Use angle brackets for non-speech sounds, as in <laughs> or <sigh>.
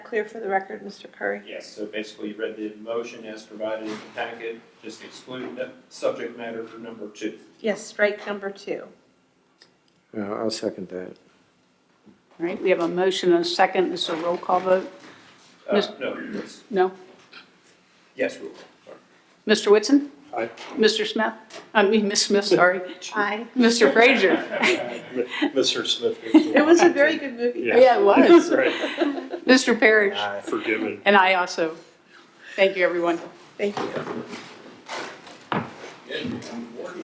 clear for the record, Mr. Curry? Yes, so basically you read the motion as provided in the packet, just exclude the subject matter for number two. Yes, strike number two. Yeah, I'll second that. All right, we have a motion and a second. This is a roll call vote? Uh, Mis- no, yes, No? yes, roll call, sorry. Mr. Whitson? Aye. Mr. Smith? I mean, Ms. Smith, sorry. Aye. Mr. Frazier? Mr. Smith. It was a very good movie. Yeah. Yeah, it was. <laughs> Right, Mr. Parrish? forgiven. And I also. Thank you, everyone. Thank you. Good, I'm working.